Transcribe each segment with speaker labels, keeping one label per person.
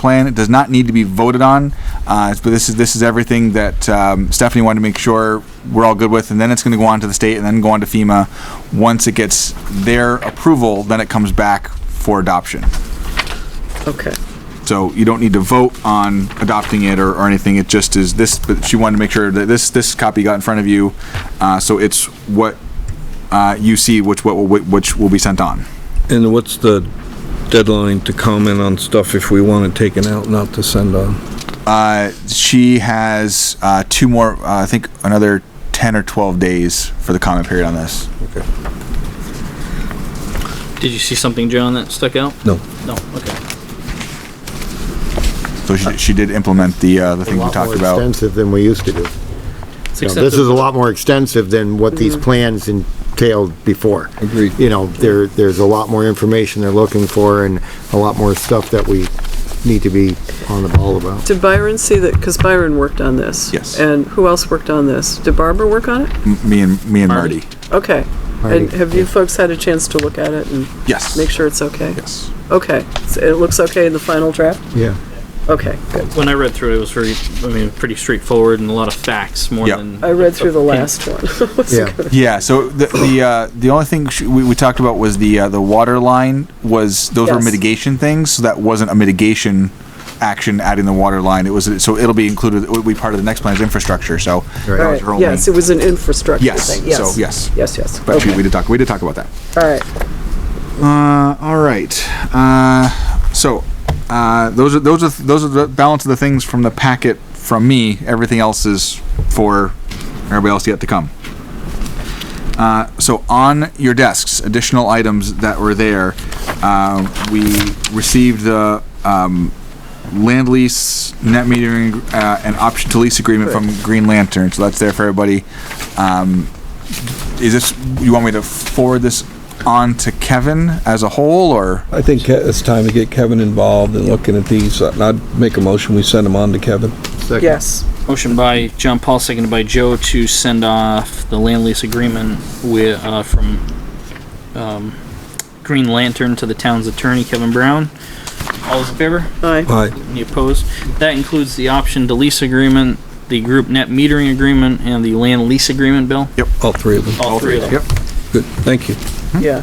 Speaker 1: plan. It does not need to be voted on, uh, but this is this is everything that um, Stephanie wanted to make sure we're all good with, and then it's going to go on to the state, and then go on to FEMA. Once it gets their approval, then it comes back for adoption.
Speaker 2: Okay.
Speaker 1: So you don't need to vote on adopting it or, or anything. It just is this, but she wanted to make sure that this, this copy got in front of you. Uh, so it's what, uh, you see, which, what, will- which will be sent on.
Speaker 3: And what's the deadline to comment on stuff if we want it taken out, not to send on?
Speaker 1: Uh, she has, uh, two more, uh, I think another ten or twelve days for the comment period on this.
Speaker 3: Okay.
Speaker 4: Did you see something, John, that stuck out?
Speaker 3: No.
Speaker 4: No, okay.
Speaker 1: So she, she did implement the, uh, the things we
Speaker 5: lot
Speaker 1: talked
Speaker 5: more
Speaker 1: about.
Speaker 5: extensive than we used to do.
Speaker 4: It's
Speaker 5: You know,
Speaker 4: accepted.
Speaker 5: This is a lot more extensive than what these plans entailed before.
Speaker 3: Agreed.
Speaker 5: You know, there, there's a lot more information they're looking for and a lot more stuff that we need to be on the ball about.
Speaker 2: Did Byron see that, because Byron worked on this?
Speaker 1: Yes.
Speaker 2: And who else worked on this? Did Barbara work on it?
Speaker 1: M- Me and, me and
Speaker 4: Marty.
Speaker 1: Marty.
Speaker 2: Okay.
Speaker 5: Marty.
Speaker 2: And have you folks had a chance to look at it and
Speaker 1: Yes.
Speaker 2: make sure it's okay?
Speaker 1: Yes.
Speaker 2: Okay. So It looks okay in the final draft?
Speaker 5: Yeah.
Speaker 2: Okay, good.
Speaker 4: When I read through it, it was very, I mean, pretty straightforward and a lot of facts more
Speaker 1: Yeah.
Speaker 4: than.
Speaker 2: I read through the last one.
Speaker 5: Yeah.
Speaker 1: Yeah, so the, the, uh, the only thing sh- we, we talked about was the, uh, the water line was, those were
Speaker 2: Yes.
Speaker 1: mitigation things, so that wasn't a mitigation action adding the water line, it was, so it'll be included, it will be part of the next plan's infrastructure, so. that
Speaker 2: All
Speaker 1: was
Speaker 2: right.
Speaker 1: her only-
Speaker 2: Yes, it was an infrastructure
Speaker 1: Yes,
Speaker 2: thing,
Speaker 1: so,
Speaker 2: yes.
Speaker 1: yes.
Speaker 2: Yes, yes.
Speaker 1: But we,
Speaker 2: Okay,
Speaker 1: we did talk, we did talk about that.
Speaker 2: all right.
Speaker 1: Uh, all right, uh, so, uh, those are, those are, those are the balance of the things from the packet from me, everything else is for everybody else yet to come. Uh, so on your desks, additional items that were there, um, we received the um, land lease, net metering, uh, and option to lease agreement from Green Lantern. So that's there for everybody. Um, is this you want me to forward this on to Kevin as a whole, or
Speaker 3: I think Ke- it's time to get Kevin involved in looking at these. And I'd make a motion, we send them on to Kevin.
Speaker 5: Second.
Speaker 2: Yes,
Speaker 4: Motion by John Paul, seconded by Joe to send off the land lease agreement with, uh, from, um, Green Lantern to the town's attorney, Kevin Brown. All those in favor?
Speaker 2: aye.
Speaker 1: Uh-huh.
Speaker 3: Aye.
Speaker 4: Any opposed? That includes the option to lease agreement, the group net metering agreement, and the land lease agreement, Bill?
Speaker 3: All three of them.
Speaker 4: All three of them.
Speaker 1: Yep.
Speaker 3: Good, thank you.
Speaker 2: Yeah,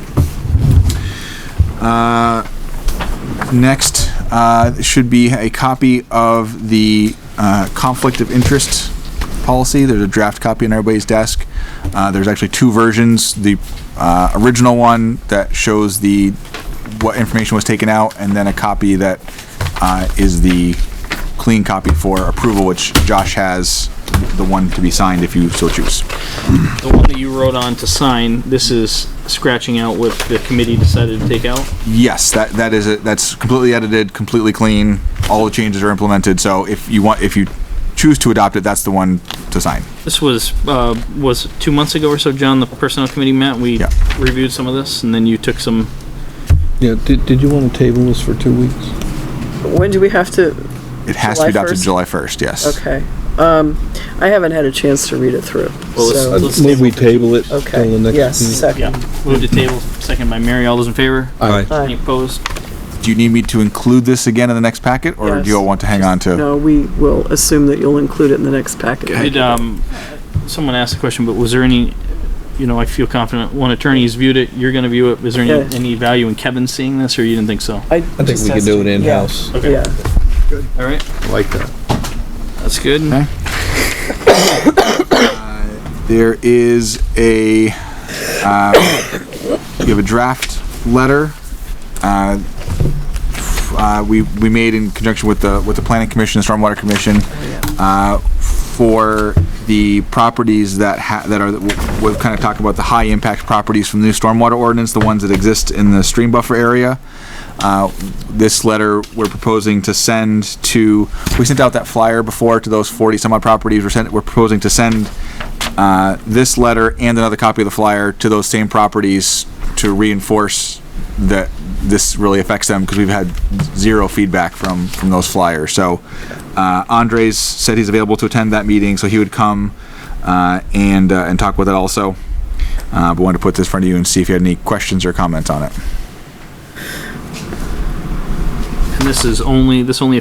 Speaker 1: next uh, should be a copy of the uh, conflict of interest policy. There's a draft copy on everybody's desk. Uh, there's actually two versions. The uh, original one that shows the what information was taken out, and then a copy that uh, is the clean copy for approval, which Josh has the one to be signed if you so choose.
Speaker 4: The one that you wrote on to sign, this is scratching out what the committee decided to take out.
Speaker 1: Yes, that that is it. That's completely edited, completely clean. All the changes are implemented. So if you want, if you choose to adopt it, that's the one to sign.
Speaker 4: This was, uh, was two months ago or so, John, the personnel committee met, we
Speaker 1: Yeah.
Speaker 4: reviewed some of this, and then you took some,
Speaker 3: Yeah, did, did you want to table this for two weeks?
Speaker 2: when do we have to,
Speaker 1: It has to be
Speaker 2: July
Speaker 1: adopted
Speaker 2: 1st?
Speaker 1: July first. Yes.
Speaker 2: okay. Um, I haven't had a chance to read it through,
Speaker 4: Well, it's-
Speaker 2: so,
Speaker 4: Let's
Speaker 3: I'd move we table it till
Speaker 2: okay,
Speaker 3: the next.
Speaker 2: yes,
Speaker 3: meeting.
Speaker 2: second.
Speaker 4: yeah, move to table, second by Mary, all those in favor?
Speaker 3: Aye.
Speaker 4: Any
Speaker 2: Aye.
Speaker 4: opposed?
Speaker 1: Do you need me to include this again in the next packet, or do you all
Speaker 2: Yes.
Speaker 1: want to hang on to?
Speaker 2: No, we will assume that you'll include it in the next packet.
Speaker 4: Did, um, someone asked the question, but was there any, you know, I feel confident, one attorney's viewed it, you're gonna view it, is there
Speaker 2: Yeah.
Speaker 4: any, any value in Kevin seeing this, or you didn't think so?
Speaker 2: I
Speaker 3: I think we can do it in-house.
Speaker 4: Okay.
Speaker 2: Yeah,
Speaker 4: Alright,
Speaker 5: Like that.
Speaker 4: that's good.
Speaker 1: Okay. There is a, uh, you have a draft letter. uh, f- uh, We, we made in conjunction with the, with the planning commission, the stormwater commission, uh, for the properties that ha, that are, we've kind of talked about the high impact properties from the new stormwater ordinance, the ones that exist in the stream buffer area. Uh, This letter, we're proposing to send to, we sent out that flyer before to those 40 some odd properties. We're sent, we're proposing to send uh, this letter and another copy of the flyer to those same properties to reinforce that this really affects them because we've had zero feedback from from those flyers. So uh, Andres said he's available to attend that meeting, so he would come uh, and uh, and talk with it also. Uh, but wanted to put this in front of you and see if you had any questions or comments on it.
Speaker 4: And this is only, this only